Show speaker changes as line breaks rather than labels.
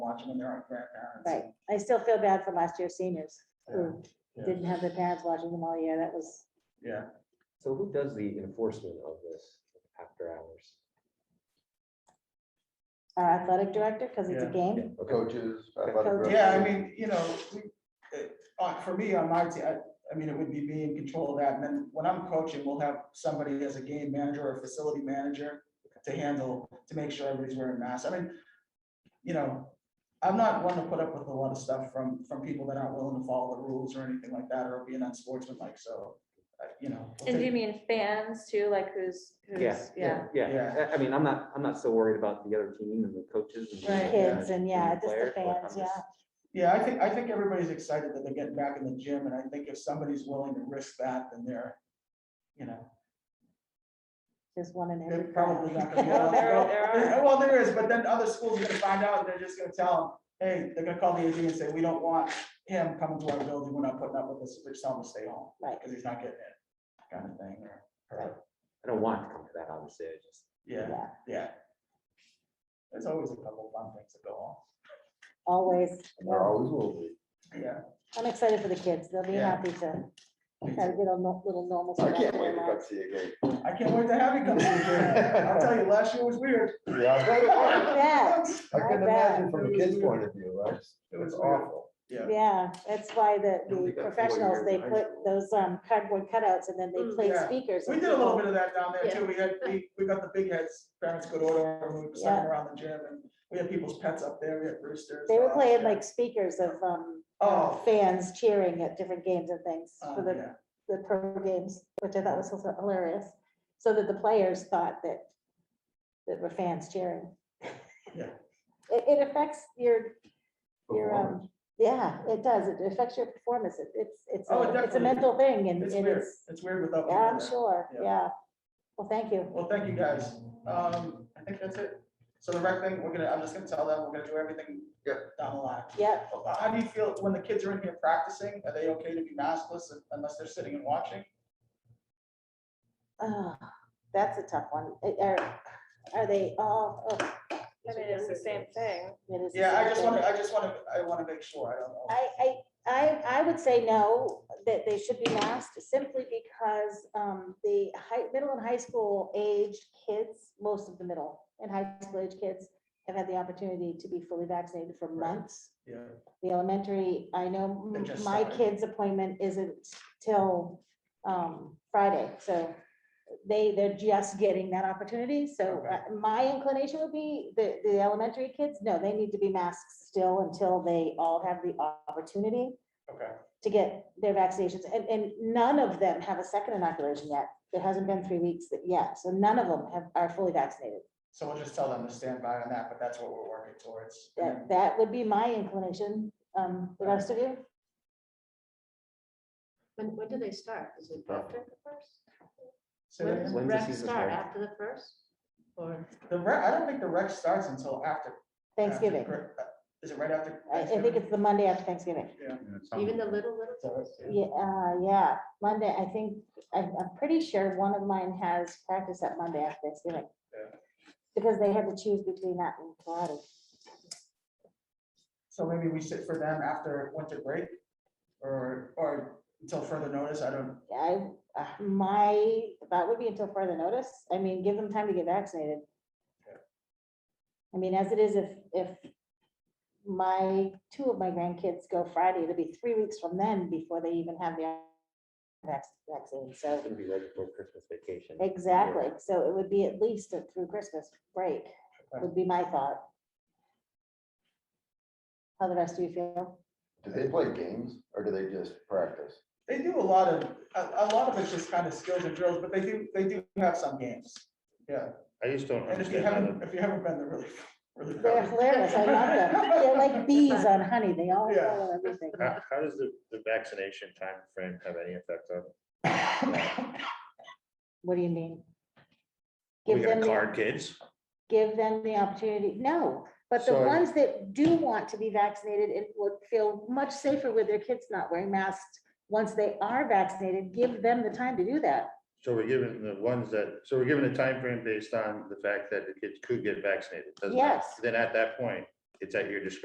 watch when they're on grandparents.
Right, I still feel bad for last year's seniors
Yeah,
who
yeah.
didn't have their parents watching them all year, that was,
Yeah,
So who does the enforcement of this after hours?
our athletic director, because it's a
Yeah.
game.
Yeah, okay.
Coaches. uh, athletic
Coaches.
yeah, I
directors.
mean, you know, we- it- uh, for me, on my team, I mean, it would be me in control of that, and then when I'm coaching, we'll have somebody as a game manager or facility manager to handle, to make sure everybody's wearing masks, I mean, you know, I'm not one to put up with a lot of stuff from, from people that aren't willing to follow the rules or anything like that, or being unsportsmanlike, so, uh, you know. we'll
And do you
take-
mean fans too, like who's,
Yeah,
who's, yeah,
yeah, yeah. I I mean, I'm not, I'm not so worried about the other team and the coaches. and
Right.
the
Kids and, yeah,
the
just the
players, but I'm
fans, yeah.
just-
Yeah, I think, I think everybody's excited that they're getting back in the gym, and I think if somebody's willing to risk that, then they're, you know,
Just one in
They're
every.
probably not gonna be
Well,
allowed to
there-
go.
there are-
There- Well, there is, but then other schools are gonna find out, and they're just gonna tell them, hey, they're gonna call the AD and say, we don't want him coming to our building, we're not putting up with this, we're just telling him to stay home,
Right,
because he's not getting it, kind of thing, or- or,
I don't want it to come to that, obviously, I just.
yeah,
yeah,
yeah. There's always a couple of fun things that go on,
always.
And There always will be.
yeah.
I'm excited for the kids. They'll be
Yeah.
happy to try to get a no- little normal.
I can't wait to come see you again.
I can't wait to have you come to the gym, I'll tell you, last year was weird.
Yeah, I bet it was.
Yeah,
I Mm-hmm. couldn't
I bet.
imagine from a kid's point of view, right?
It was Yeah.
yeah, that's why the,
Yeah,
the
we got four
professionals,
years
they
in high
put
school.
those um cardboard cutouts and then they
Mm,
play
yeah.
speakers.
We
and
did a little
people-
bit of that down there
Yeah.
too. We had, we, we got the big heads, parents good order, and we were sitting
Yeah.
around the gym and we had people's pets up there, we had roosters.
They were
dogs,
playing like
cats.
speakers of um
Oh.
fans cheering at different games and things
Oh,
for the,
yeah.
the pro games, which I thought was also hilarious. So that the players thought that, that were fans cheering.
Yeah.
It, it affects your your,
Performance.
um, yeah, it does. It affects your performance. It- It's, it's,
Oh, it
a- it's a
definitely-
mental thing and
It's
and
weird.
it's,
It's weird without. people
yeah, I'm
there.
sure,
Yeah.
yeah. Well, thank you.
Well, thank you guys. Um, I think that's it. So the rec thing, we're gonna, I'm just gonna tell them, we're gonna do everything
Yeah.
down the line.
Yeah,
How do you feel when the kids are in here practicing? Are they okay to be maskless unless they're sitting and watching?
ah, that's a tough one. Uh, Are, are they all? oh,
I mean, it's the same thing.
it is the
Yeah, I
same
just
thing.
want to, I just want to, I want to make sure. I don't know.
I, I, I, I would say no, that they should be masked simply because um, the high, middle and high school aged kids, most of the middle and high school age kids have had the opportunity to be fully vaccinated for
Right.
months.
Yeah,
The elementary, I know
They
m-
just
my
started.
kid's appointment isn't till um, Friday, so they, they're just getting that opportunity, so
Okay.
uh, my inclination would be the, the elementary kids, no, they need to be masked still until they all have the opportunity
okay,
to get their vaccinations, and, and none of them have a second inoculation yet. It hasn't been three weeks that- yet, so none of them have, are fully vaccinated.
so we'll just tell them to stand by on that, but that's what we're working towards. And then-
That, that would be my inclination, um, the rest of you?
When, when do they start? Is it after the first?
Say that
When
again?
does
When does
rec
season
start?
start?
After the first? Or,
The rec, I don't think the rec starts until after. after
Thanksgiving.
cri- uh, Is it right after?
I, I think
Thanksgiving?
it's the Monday after Thanksgiving.
Um,
even the little, little
So-
kids?
Yeah, uh, yeah, Monday, I think, I'm, I'm pretty sure one of mine has practice at Monday after Thanksgiving.
Yeah.
Because they had to choose between that and karate.
So maybe we sit for them after winter break or, or until further notice. I don't,
I, uh, my, that would be until further notice. I mean, give them time to get vaccinated.
Yeah.
I mean, as it is, if, if my, two of my grandkids go Friday, it'll be three weeks from then before they even have their vac- vaccine, so.
It's gonna be right before Christmas vacation.
Exactly, so it would be at least a- through Christmas break, would be my thought. How the rest of you feel?
Do they play games or do they just practice?
they do a lot of, a, a lot of it's just kind of skills and drills, but they do, they do have some games. Yeah,
I just don't
and if you
understand how
haven't,
the,
if you haven't been, they're really, really.
They're hilarious, I love them, they're like bees on honey, they all
Yeah.
follow everything.
how, how does the, the vaccination time frame have any effect on?
What do you mean?
We
Give them,
gotta
the-
card kids,
give them the opportunity, no, but the
So-
ones that do want to be vaccinated and would feel much safer with their kids not wearing masks, once they are vaccinated, give them the time to do that.
so we're giving the ones that, so we're giving a time frame based on the fact that the kids could get vaccinated. doesn't it?
Yes.
Then at that point, it's at your discretion